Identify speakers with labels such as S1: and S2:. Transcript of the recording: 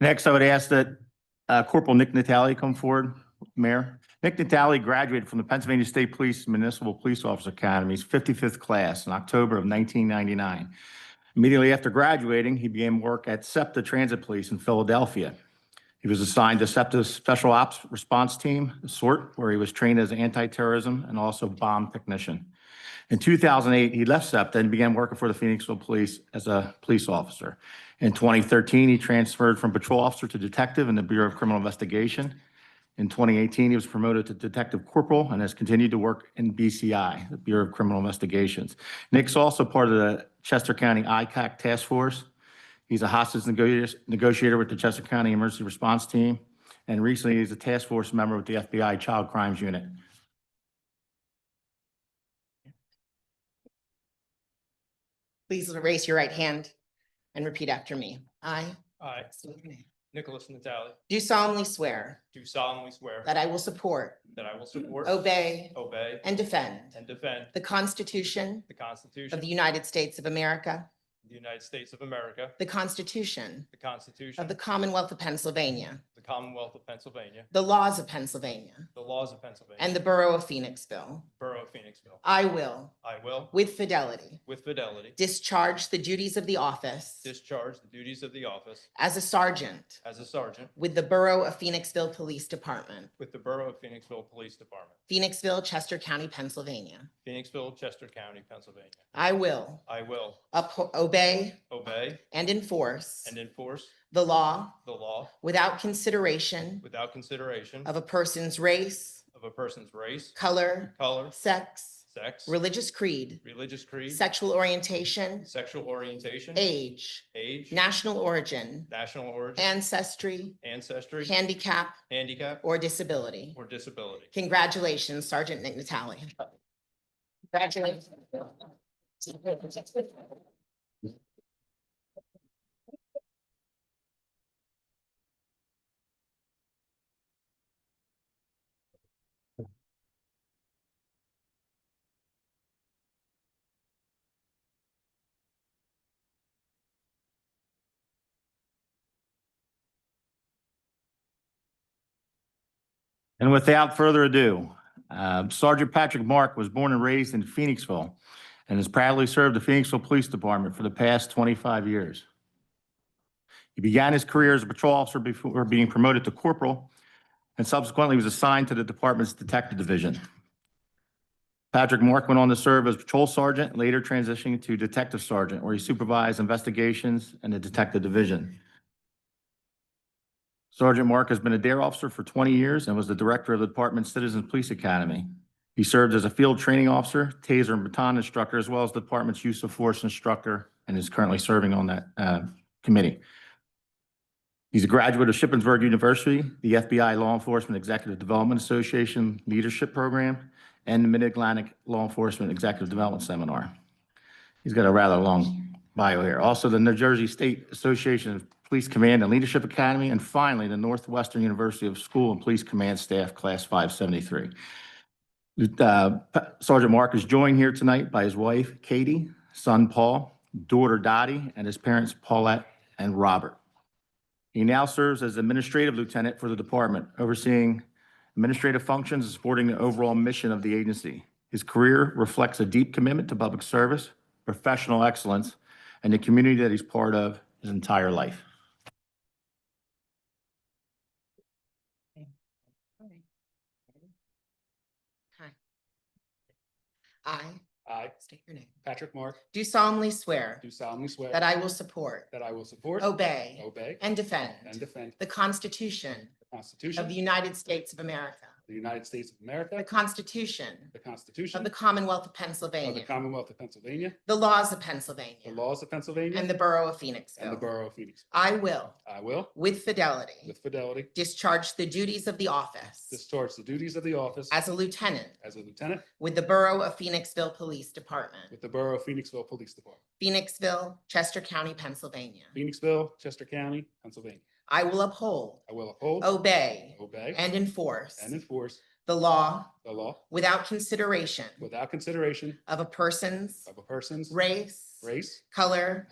S1: Next, I would ask that uh, Corporal Nick Natale come forward, Mayor. Nick Natale graduated from the Pennsylvania State Police Municipal Police Officer Academy's 55th class in October of 1999. Immediately after graduating, he began work at SEPTA Transit Police in Philadelphia. He was assigned to SEPTA's Special Ops Response Team, SORT, where he was trained as an anti-terrorism and also bomb technician. In 2008, he left SEPTA and began working for the Phoenixville Police as a police officer. In 2013, he transferred from patrol officer to detective in the Bureau of Criminal Investigation. In 2018, he was promoted to detective corporal and has continued to work in BCI, the Bureau of Criminal Investigations. Nick's also part of the Chester County ICAC Task Force. He's a hostage nego- negotiator with the Chester County Emergency Response Team, and recently he's a task force member with the FBI Child Crimes Unit.
S2: Please raise your right hand and repeat after me. I
S3: I,
S2: state your name.
S3: Nicholas Natale,
S2: do solemnly swear
S3: do solemnly swear
S2: that I will support,
S3: that I will support,
S2: obey,
S3: obey,
S2: and defend
S3: and defend
S2: the Constitution
S3: the Constitution
S2: of
S3: of
S2: the United States of America,
S3: the United States of America,
S2: the Constitution
S3: the Constitution
S2: of the
S3: of
S2: Commonwealth of Pennsylvania,
S3: the Commonwealth of Pennsylvania,
S2: the laws of Pennsylvania,
S3: the laws of Pennsylvania,
S2: and the Borough of Phoenixville.
S3: Borough of Phoenixville.
S2: I will,
S3: I will,
S2: with fidelity,
S3: with fidelity,
S2: discharge the duties of the office
S3: discharge the duties of the office
S2: as a sergeant
S3: as a sergeant
S2: with the Borough of Phoenixville Police Department,
S3: with the Borough of Phoenixville Police Department,
S2: Phoenixville, Chester County, Pennsylvania.
S3: Phoenixville, Chester County, Pennsylvania.
S2: I will
S3: I will
S2: upho- obey
S3: obey
S2: and enforce
S3: and enforce
S2: the law
S3: the law
S2: without consideration
S3: without consideration
S2: of a person's race,
S3: of a person's race,
S2: color,
S3: color,
S2: sex,
S3: sex,
S2: religious creed,
S3: religious creed,
S2: sexual orientation,
S3: sexual orientation,
S2: age,
S3: age,
S2: national origin,
S3: national origin,
S2: ancestry,
S3: ancestry,
S2: handicap,
S3: handicap,
S2: or disability.
S3: or disability.
S2: Congratulations, Sergeant Nick Natale. Congratulations.
S1: And without further ado, uh, Sergeant Patrick Mark was born and raised in Phoenixville and has proudly served the Phoenixville Police Department for the past 25 years. He began his career as a patrol officer before being promoted to corporal and subsequently was assigned to the department's detective division. Patrick Mark went on to serve as patrol sergeant, later transitioning to detective sergeant, where he supervised investigations in the detective division. Sergeant Mark has been a dare officer for 20 years and was the director of the department's Citizens Police Academy. He served as a field training officer, taser and baton instructor, as well as the department's use of force instructor, and is currently serving on that uh, committee. He's a graduate of Shippensburg University, the FBI Law Enforcement Executive Development Association Leadership Program, and the Mid-Atlantic Law Enforcement Executive Development Seminar. He's got a rather long bio here. Also, the New Jersey State Association of Police Command and Leadership Academy, and finally, the Northwestern University of School and Police Command Staff, Class 573. Uh, Sergeant Mark is joined here tonight by his wife, Katie, son, Paul, daughter, Dottie, and his parents, Paulette and Robert. He now serves as Administrative Lieutenant for the department, overseeing administrative functions and supporting the overall mission of the agency. His career reflects a deep commitment to public service, professional excellence, and the community that he's part of his entire life.
S2: Hi. I
S4: I,
S2: state your name.
S4: Patrick Mark,
S2: Do solemnly swear
S4: do solemnly swear
S2: that I will support,
S4: that I will support,
S2: obey,
S4: obey,
S2: and defend
S4: and defend
S2: the Constitution
S4: the Constitution
S2: of the United States of America,
S4: of the United States of
S2: the
S4: America,
S2: Constitution
S4: the
S2: of
S4: Constitution
S2: the Commonwealth of
S4: of the
S2: Pennsylvania,
S4: Commonwealth of Pennsylvania,
S2: the laws of
S4: the
S2: Pennsylvania,
S4: laws of Pennsylvania,
S2: and the Borough of
S4: and the
S2: Phoenixville.
S4: Borough of Phoenix.
S2: I will,
S4: I will,
S2: with fidelity,
S4: with fidelity,
S2: discharge the duties of the office
S4: discharge the duties of the office
S2: as a lieutenant
S4: as a lieutenant
S2: with the Borough of Phoenixville Police Department,
S4: with the Borough of Phoenixville Police Department,
S2: Phoenixville, Chester County, Pennsylvania.
S4: Phoenixville, Chester County, Pennsylvania.
S2: I will uphold,
S4: I will uphold,
S2: obey,
S4: obey,
S2: Oh, and enforce
S4: and enforce
S2: the law
S4: the law
S2: without consideration
S4: without consideration
S2: of a person's
S4: of a person's
S2: race,
S4: race,
S2: color,